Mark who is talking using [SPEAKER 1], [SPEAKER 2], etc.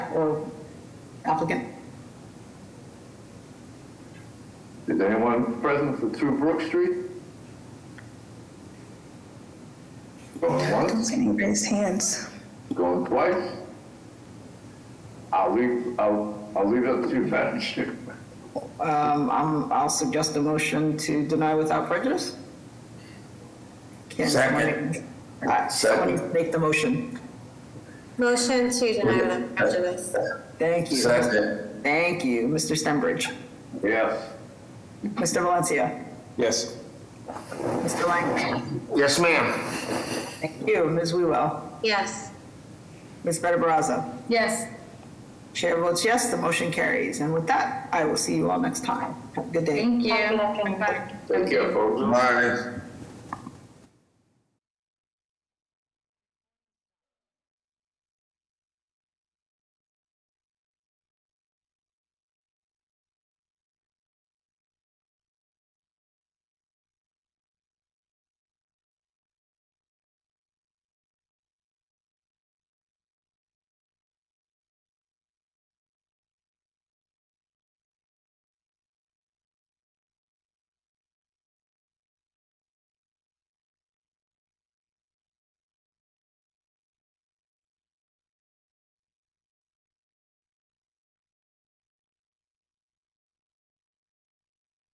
[SPEAKER 1] or applicant?
[SPEAKER 2] Is anyone present for 2 Brook Street? Going
[SPEAKER 3] Don't
[SPEAKER 2] once,
[SPEAKER 3] see any raised hands.
[SPEAKER 2] going twice? I'll leave, I'll, I'll leave it up to you, Madam Chair.
[SPEAKER 1] Um, I'm, I'll suggest a motion to deny without prejudice. Can someone
[SPEAKER 2] Second.
[SPEAKER 1] make- uh, someone
[SPEAKER 2] Second.
[SPEAKER 1] Make the motion.
[SPEAKER 4] Motion to deny without prejudice.
[SPEAKER 1] Thank you. Thank you, Mr. Stenbridge.
[SPEAKER 2] Yes.
[SPEAKER 1] Mr. Valencia.
[SPEAKER 5] Yes.
[SPEAKER 1] Mr. Lang.
[SPEAKER 5] Yes, ma'am.
[SPEAKER 1] Thank you, Ms. Wewell.
[SPEAKER 4] Yes.
[SPEAKER 1] Ms. Better Brazza.
[SPEAKER 4] Yes.
[SPEAKER 1] Chair votes yes, the motion carries. And with that, I will see you all next time. Have a good day.
[SPEAKER 4] Thank you.
[SPEAKER 2] Take care, folks.
[SPEAKER 5] Bye.